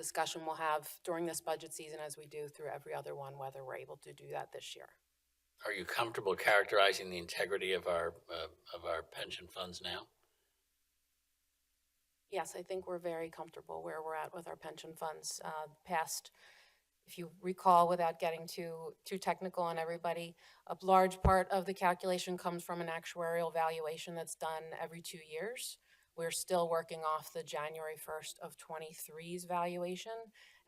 discussion we'll have during this budget season as we do through every other one, whether we're able to do that this year. Are you comfortable characterizing the integrity of our, uh, of our pension funds now? Yes, I think we're very comfortable where we're at with our pension funds. Uh, Past, if you recall, without getting too, too technical on everybody, a large part of the calculation comes from an actuarial valuation that's done every two years. We're still working off the January 1st of '23's valuation.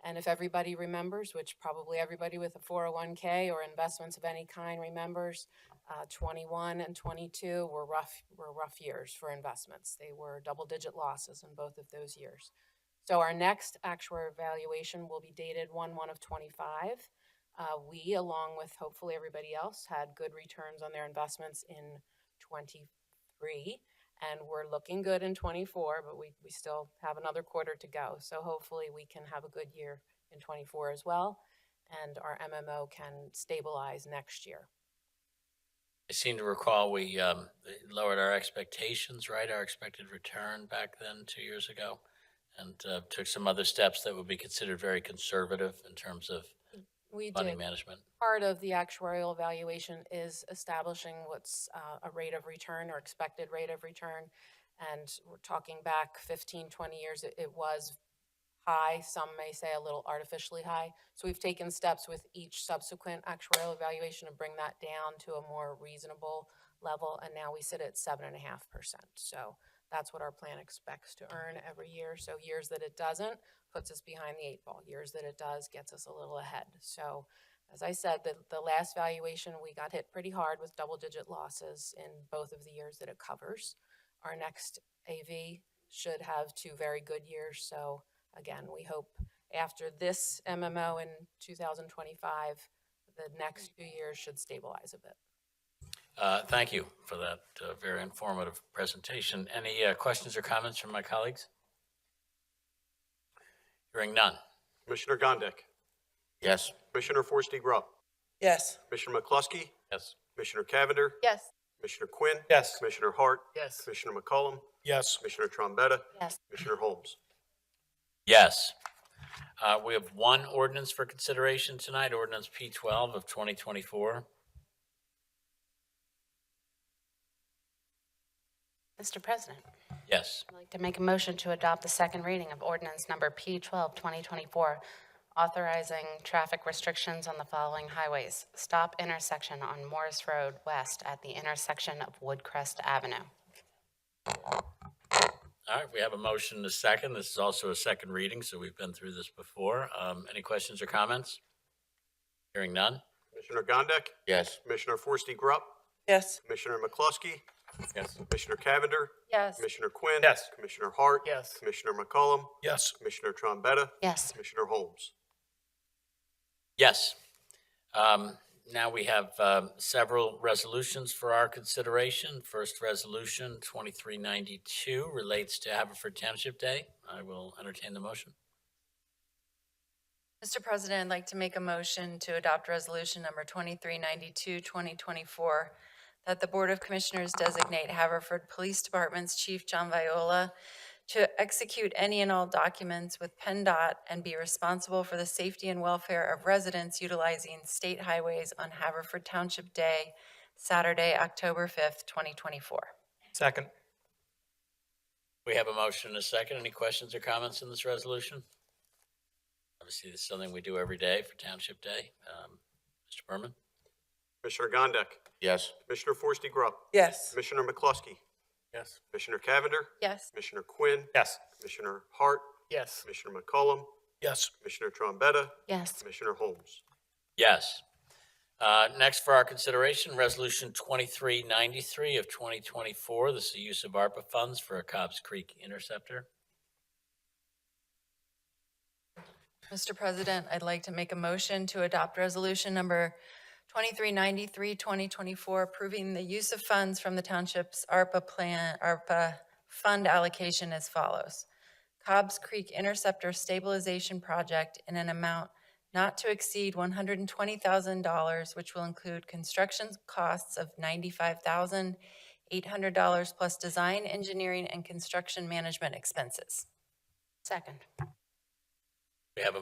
And if everybody remembers, which probably everybody with a 401K or investments of any kind remembers, uh, 21 and 22 were rough, were rough years for investments. They were double-digit losses in both of those years. So our next actuarial valuation will be dated 1/1 of '25. We, along with hopefully everybody else, had good returns on their investments in '23, and we're looking good in '24, but we, we still have another quarter to go. So hopefully, we can have a good year in '24 as well, and our MMO can stabilize next year. I seem to recall we um, lowered our expectations, right? Our expected return back then, two years ago, and uh, took some other steps that would be considered very conservative in terms of We did. funding management. part of the actuarial evaluation is establishing what's uh, a rate of return or expected rate of return. And we're talking back 15, 20 years, it- it was high, some may say a little artificially high. So we've taken steps with each subsequent actuarial evaluation to bring that down to a more reasonable level. And now we sit at 7.5%. So that's what our plan expects to earn every year. So years that it doesn't puts us behind the eight ball. Years that it does gets us a little ahead. So as I said, the, the last valuation, we got hit pretty hard with double-digit losses in both of the years that it covers. Our next AV should have two very good years, so again, we hope after this MMO in two thousand twenty-five, the next two years should stabilize a bit. Uh, Thank you for that uh, very informative presentation. Any uh, questions or comments from my colleagues? Hearing none. Commissioner Gondik. Yes. Commissioner Forresty Grubb. Yes. Commissioner McCluskey. Yes. Commissioner Cavender. Yes. Commissioner Quinn. Yes. Commissioner Hart. Yes. Commissioner McCollum. Yes. Commissioner Trombetta. Yes. Commissioner Holmes. Yes. Uh, We have one ordinance for consideration tonight, ordinance P-12 of 2024. Mr. President, Yes. I'd like to make a motion to adopt the second reading of ordinance number P-12, 2024, authorizing traffic restrictions on the following highways. Stop intersection on Morris Road West at the intersection of Woodcrest Avenue. All right, we have a motion and a second. This is also a second reading, so we've been through this before. Um, Any questions or comments? Hearing none? Commissioner Gondik. Yes. Commissioner Forresty Grubb. Yes. Commissioner McCluskey. Yes. Commissioner Cavender. Yes. Commissioner Quinn. Yes. Commissioner Hart. Yes. Commissioner McCollum. Yes. Commissioner Trombetta. Yes. Commissioner Holmes. Yes. Um, Now we have um, several resolutions for our consideration. First resolution, 2392, relates to Haverford Township Day. I will entertain the motion. Mr. President, I'd like to make a motion to adopt Resolution Number 2392, 2024, that the Board of Commissioners designate Haverford Police Department's Chief John Viola to execute any and all documents with PennDOT and be responsible for the safety and welfare of residents utilizing state highways on Haverford Township Day, Saturday, October 5th, 2024. Second. We have a motion and a second. Any questions or comments on this resolution? Obviously, this is something we do every day for Township Day. Um, Mr. Berman? Commissioner Gondik. Yes. Commissioner Forresty Grubb. Yes. Commissioner McCluskey. Yes. Commissioner Cavender. Yes. Commissioner Quinn. Yes. Commissioner Hart. Yes. Commissioner McCollum. Yes. Commissioner Trombetta. Yes. Commissioner Holmes. Yes. Uh, Next for our consideration, Resolution 2393 of 2024. This is the use of ARPA funds for a Cobb's Creek interceptor. Mr. President, I'd like to make a motion to adopt Resolution Number 2393, 2024, approving the use of funds from the township's ARPA plan, ARPA fund allocation as follows. Cobb's Creek Interceptor Stabilization Project in an amount not to exceed $120,000, which will include construction costs of $95,800 plus design, engineering, and construction management expenses. Second.